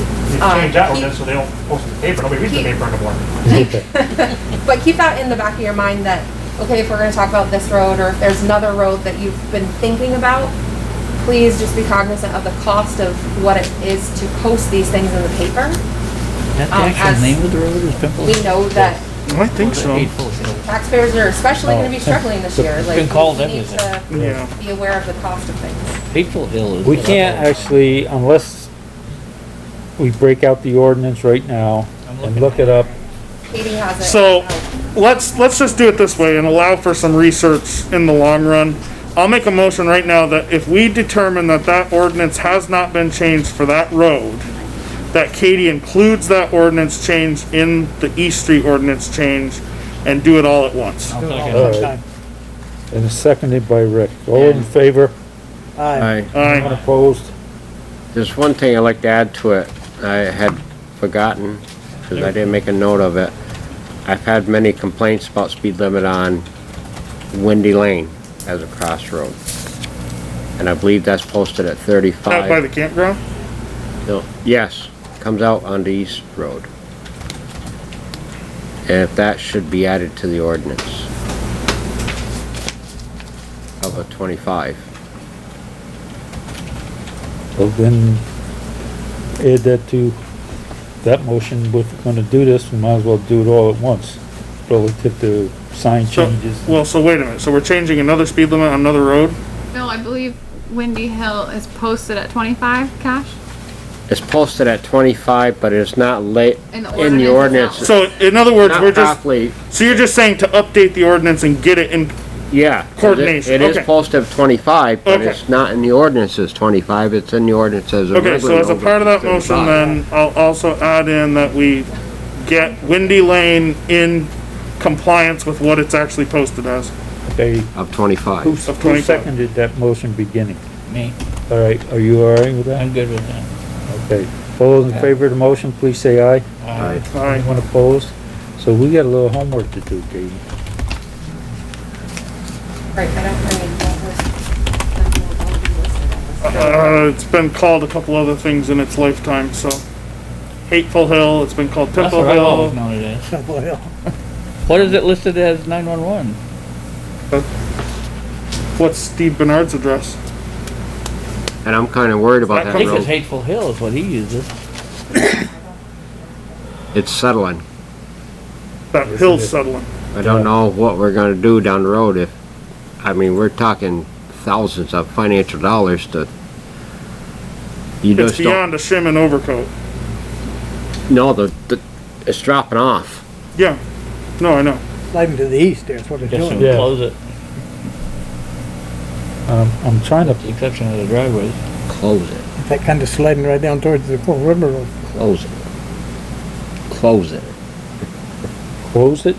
We've Uh, changed that he- ordinance, so they don't post it in the paper, nobody reads the he- paper anymore. But keep that in the back of your mind that, okay, if we're gonna talk about this road, or if there's another road that you've been thinking about, please just be cognizant of the cost of what it is to post these things in the paper. That the Um, as- actual name of the road is Pimples? We know that I think so. taxpayers are especially gonna be Oh. struggling this year, like. been called we need everything. to Yeah. Be aware of the cost of things. Hateful Hill is. We what I can't call it. actually, unless we break out the ordinance right now and look it up. Katie has it. Oh, So, let's, let's just do it this way and allow for some research in the long run. I'll make a motion right now that if we determine that that ordinance has not been changed for that road, that Katie includes that ordinance change in the East Street ordinance change and do it all at once. Alright. uh, And it's seconded by Rick. All in favor? I, Aye. Unopposed? there's one thing I'd like to add to it. I had forgotten, because I didn't make a note of it. I've had many complaints about speed limit on Windy Lane as a crossroad. And I believe that's posted at Out by thirty-five. the campground? No, Yes, comes out on the East Road. And if that should be added to the ordinance of a twenty-five. Well, then add that to that motion. If we're gonna do this, we might as well do it all at once. Relative to sign So, changes. well, so wait a minute, so we're changing another speed limit on another road? No, I believe Windy Hill is posted at twenty-five, Cash? It's posted at twenty-five, but it's not late, In the in the ordinance ordinance, itself. So, in other words, we're not just, properly, so you're just saying to update the ordinance and get it in, yeah. 'cause it- Coordination, It is okay. posted at twenty-five, but Okay. it's not in the ordinance as twenty-five, it's in the ordinance as a Okay, so regular as a number, part of that motion 35. then, I'll also add in that we get Windy Lane in compliance with what it's actually posted as. They, Of twenty-five. who Of who 25. seconded that motion beginning? Me, All right, are you all right with that? I'm good with that. Okay. All those in favor of the motion, please say aye. Uh, Alright, Anyone opposed? So we got a little homework to do, Katie. Right, I don't really know what was- what was listed on this. uh, it's been called a couple other things in its lifetime, so. Hateful Hill, it's been called That's Pimple what I've always Hill, known it as. What is it listed as nine-one-one? what's Steve Bernard's address? And I'm kinda worried about That I that think it's road. Hateful Hill is what he uses. It's settling. That hill's settling. I don't know what we're gonna do down the road if, I mean, we're talking thousands of financial dollars to. You It's just don't, beyond a shim and overcoat. no, the, the, it's dropping off. Yeah, no, I know. sliding to the east there is what it's Just to doing. Yeah. close it, Um, I'm trying to, with the exception of the driveways. Close it, It's That kind of sliding right down towards the Pearl River Road. close it. Close it. close it,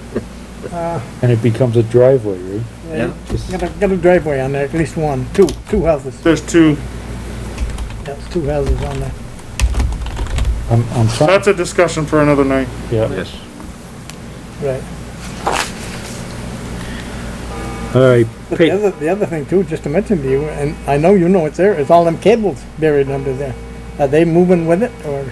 Uh, and it becomes a driveway, right? yeah, Just- Got a, got a driveway on there, at least one, two, two houses. There's two, That's two houses on there. I'm, I'm trying, that's a discussion for another night. yeah. Yes. Right. All right, But the Pete, other, the other thing too, just to mention to you, and I know you know it's there, is all them cables buried under there. Are they moving with it or?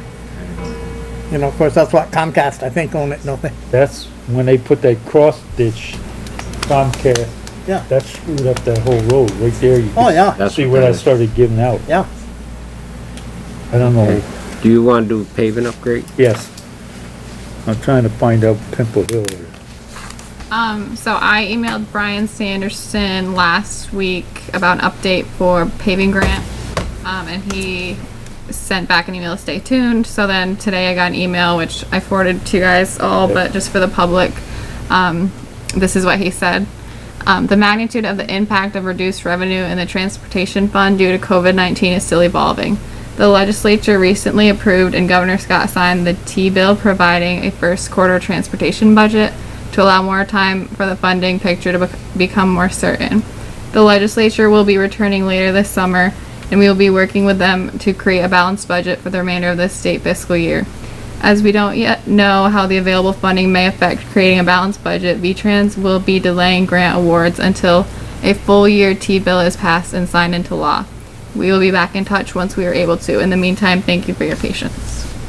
You know, of course, that's what Comcast, I think, own it, don't they? that's when they put that cross ditch Comcast. Yeah. That screwed up that whole road, right there. You Oh, can yeah, That's see what that I is. started giving out. yeah. I don't know, Do you wanna do paving upgrade? yes. I'm trying to find out Pimple Hill. or- Um, so I emailed Brian Sanderson last week about an update for paving grant. Um, and he sent back an email, stay tuned. So then today I got an email, which I forwarded to you guys all, but just for the public, um, this is what he said. Um, the magnitude of the impact of reduced revenue in the transportation fund due to COVID 19 is still evolving. The legislature recently approved and Governor Scott signed the T bill providing a first quarter transportation budget to allow more time for the funding picture to bec- become more certain. The legislature will be returning later this summer, and we will be working with them to create a balanced budget for the remainder of this state fiscal year. As we don't yet know how the available funding may affect creating a balanced budget, VTrans will be delaying grant awards until a full year T bill is passed and signed into law. We will be back in touch once we are able to. In the meantime, thank you for your patience.